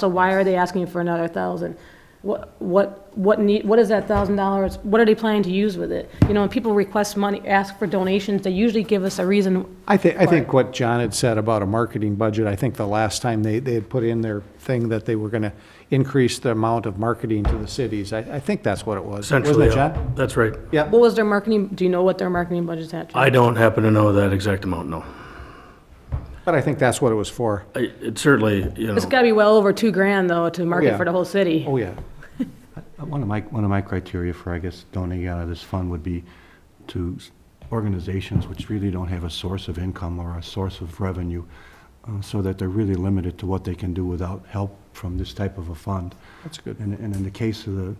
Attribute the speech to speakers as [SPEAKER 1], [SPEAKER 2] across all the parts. [SPEAKER 1] So why are they asking for another thousand? What, what, what need, what is that thousand dollars, what are they planning to use with it? You know, when people request money, ask for donations, they usually give us a reason,
[SPEAKER 2] I think, I think
[SPEAKER 1] Right.
[SPEAKER 2] what John had said about a marketing budget, I think the last time they, they had put in their thing that they were gonna increase the amount of marketing to the cities, I, I think that's what it was. Wasn't
[SPEAKER 3] Essentially,
[SPEAKER 2] it,
[SPEAKER 3] yeah.
[SPEAKER 2] John?
[SPEAKER 3] That's right.
[SPEAKER 2] Yeah,
[SPEAKER 1] what was their marketing, do you know what their marketing budget's at? John?
[SPEAKER 3] I don't happen to know that exact amount, no.
[SPEAKER 2] but I think that's what it was for.
[SPEAKER 3] I- It certainly, you
[SPEAKER 1] It's
[SPEAKER 3] know,
[SPEAKER 1] gotta be well over two grand though to
[SPEAKER 2] yeah.
[SPEAKER 1] market for the whole city.
[SPEAKER 2] Oh, yeah.
[SPEAKER 4] Uh, One of my, one of my criteria for, I guess, donating out of this fund would be to s- organizations which really don't have a source of income or a source of revenue, uh, so that they're really limited to what they can do without help from this type of a fund.
[SPEAKER 2] That's good.
[SPEAKER 4] And, and in the case of the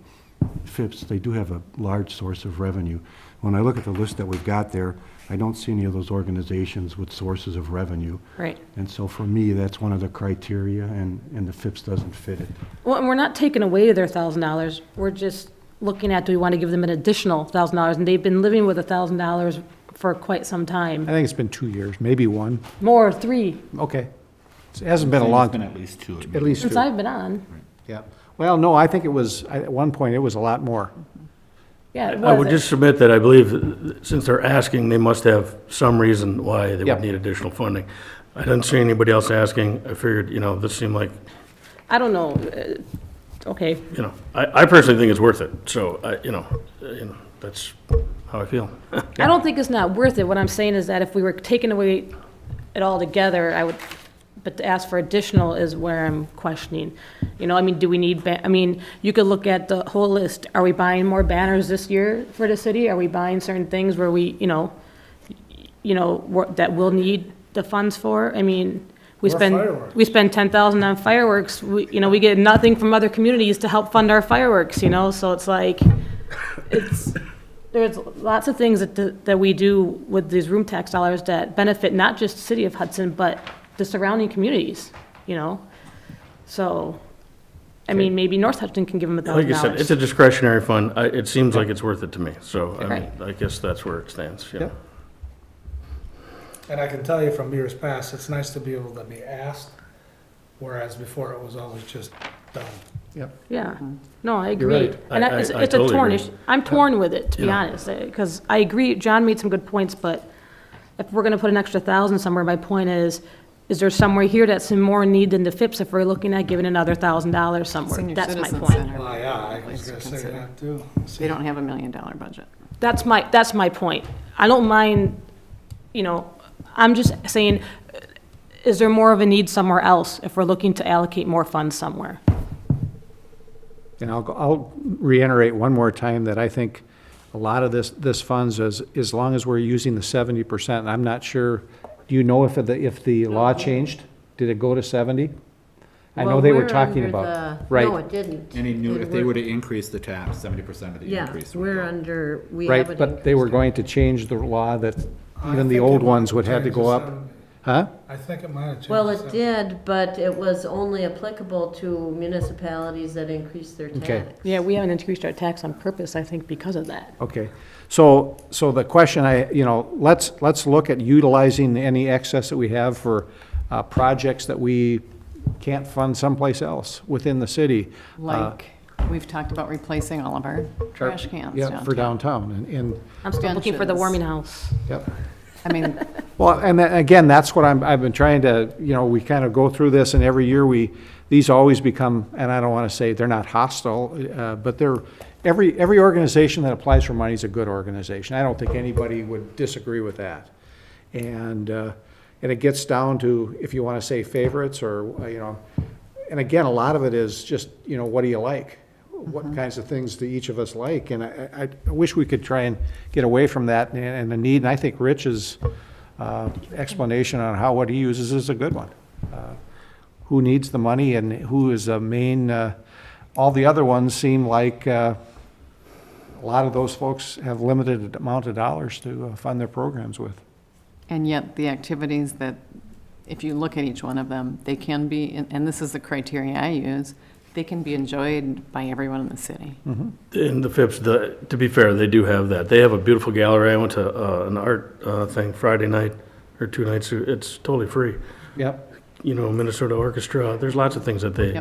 [SPEAKER 4] FIPS, they do have a large source of revenue. When I look at the list that we've got there, I don't see any of those organizations with sources of revenue.
[SPEAKER 1] Right.
[SPEAKER 4] And so for me, that's one of the criteria, and, and the FIPS doesn't fit it.
[SPEAKER 1] Well, and we're not taking away their thousand dollars, we're just looking at, do we wanna give them an additional thousand dollars? And they've been living with a thousand dollars for quite some
[SPEAKER 2] I
[SPEAKER 1] time,
[SPEAKER 2] think it's been two years, maybe one.
[SPEAKER 1] more, three,
[SPEAKER 2] Okay. It hasn't been a long,
[SPEAKER 5] Been at least two.
[SPEAKER 2] at least
[SPEAKER 1] since
[SPEAKER 2] two.
[SPEAKER 1] I've been on.
[SPEAKER 2] Yeah. Well, no, I think it was, I- at one point, it was a lot more.
[SPEAKER 1] Yeah, it
[SPEAKER 3] I would
[SPEAKER 1] was.
[SPEAKER 3] just submit that I believe, uh, since they're asking, they must have some reason why they
[SPEAKER 2] Yeah.
[SPEAKER 3] would need additional funding. I didn't see anybody else asking. I figured, you know, this seemed like,
[SPEAKER 1] I don't know, uh, okay.
[SPEAKER 3] you know, I, I personally think it's worth it. So, I, you know, uh, you know, that's how I feel.
[SPEAKER 1] I don't think it's not worth it. What I'm saying is that if we were taking away it all together, I would, but to ask for additional is where I'm questioning. You know, I mean, do we need, ba- I mean, you could look at the whole list. Are we buying more banners this year for the city? Are we buying certain things where we, you know, you know, wor- that we'll need the funds for? I mean, we spend, we spend ten thousand on fireworks. We, you know, we get nothing from other communities to help fund our fireworks, you know? So it's like, it's, there's lots of things that, that we do with these room tax dollars that benefit not just the city of Hudson, but the surrounding communities, you know? So, I mean, maybe North Hudson can give them a
[SPEAKER 3] Like
[SPEAKER 1] thousand
[SPEAKER 3] you said, it's
[SPEAKER 1] dollars.
[SPEAKER 3] a discretionary fund. I, it seems like it's worth it to me. So, I mean,
[SPEAKER 1] Right.
[SPEAKER 3] I guess that's where it stands, you know.
[SPEAKER 2] Yep.
[SPEAKER 6] And I can tell you from years past, it's nice to be able to be asked, whereas before it was always just done.
[SPEAKER 2] Yep.
[SPEAKER 1] Yeah, no, I
[SPEAKER 2] You're right.
[SPEAKER 1] agree. And
[SPEAKER 3] I-
[SPEAKER 1] I- it's
[SPEAKER 3] I- I
[SPEAKER 1] it's a
[SPEAKER 3] totally
[SPEAKER 1] torn
[SPEAKER 3] agree.
[SPEAKER 1] issue. I'm torn with it, to be
[SPEAKER 3] Yeah.
[SPEAKER 1] honest, because I agree, John made some good points, but if we're gonna put an extra thousand somewhere, my point is, is there somewhere here that's in more need than the FIPS if we're looking at giving another thousand dollars somewhere?
[SPEAKER 7] Senior
[SPEAKER 1] That's my
[SPEAKER 7] Citizen
[SPEAKER 1] point.
[SPEAKER 7] Center
[SPEAKER 6] Well, Ah, yeah, I
[SPEAKER 7] place
[SPEAKER 6] was
[SPEAKER 7] to
[SPEAKER 6] gonna say
[SPEAKER 7] consider.
[SPEAKER 6] that too.
[SPEAKER 7] They don't have a million dollar budget.
[SPEAKER 1] That's my, that's my point. I don't mind, you know, I'm just saying, is there more of a need somewhere else if we're looking to allocate more funds somewhere?
[SPEAKER 2] And I'll, go- I'll reiterate one more time that I think a lot of this, this funds is, as long as we're using the seventy percent, and I'm not sure, do you know if the, if the law changed? Did it go to seventy? I know
[SPEAKER 8] Well,
[SPEAKER 2] they were
[SPEAKER 8] we're
[SPEAKER 2] talking
[SPEAKER 8] under
[SPEAKER 2] about,
[SPEAKER 8] the- No,
[SPEAKER 2] right,
[SPEAKER 8] it didn't.
[SPEAKER 5] Any new,
[SPEAKER 8] It
[SPEAKER 5] if they
[SPEAKER 8] were-
[SPEAKER 5] were to increase the tax, seventy percent of the
[SPEAKER 8] Yeah,
[SPEAKER 5] increase. would
[SPEAKER 8] we're
[SPEAKER 5] go.
[SPEAKER 8] under, we
[SPEAKER 2] right,
[SPEAKER 8] haven't.
[SPEAKER 2] but they were going to change the law that even the old ones would have to go up, huh?
[SPEAKER 6] I think it might have changed.
[SPEAKER 8] Well,
[SPEAKER 6] to
[SPEAKER 8] it
[SPEAKER 6] 70.
[SPEAKER 8] did, but it was only applicable to municipalities that increased their
[SPEAKER 2] Okay.
[SPEAKER 8] tax.
[SPEAKER 1] Yeah, we haven't increased our tax on purpose, I think, because of that.
[SPEAKER 2] Okay, so, so the question I, you know, let's, let's look at utilizing any excess that we have for, uh, projects that we can't fund someplace else within the city. Uh,
[SPEAKER 7] Like, we've talked about replacing all of our trash cans
[SPEAKER 2] Yeah, for
[SPEAKER 7] downtown.
[SPEAKER 2] downtown, and, and,
[SPEAKER 1] I'm still looking for the
[SPEAKER 7] Benches.
[SPEAKER 1] warming house.
[SPEAKER 2] yep.
[SPEAKER 7] I mean,
[SPEAKER 2] Well, and tha- again, that's what I'm, I've been trying to, you know, we kind of go through this, and every year we, these always become, and I don't want to say they're not hostile, uh, but they're, every, every organization that applies for money is a good organization. I don't think anybody would disagree with that. And, uh, and it gets down to, if you want to say favorites, or, uh, you know, and again, a lot of it is just, you know, what do you like? What kinds of things do each of us like? And I, I- I wish we could try and get away from that and, and the need, and I think Rich's uh, explanation on how, what he uses is a good one. Uh, Who needs the money and who is the main, uh, all the other ones seem like, uh, a lot of those folks have limited amount of dollars to uh, fund their programs with.
[SPEAKER 7] and yet the activities that, if you look at each one of them, they can be, and- and this is the criteria I use, they can be enjoyed by everyone in the city.
[SPEAKER 2] Mm-hmm.
[SPEAKER 3] In the FIPS, the, to be fair, they do have that. They have a beautiful gallery. I went to, uh, an art, uh, thing Friday night or two nights. It's totally free.
[SPEAKER 2] Yep.
[SPEAKER 3] You know, Minnesota Orchestra. There's lots of things that they,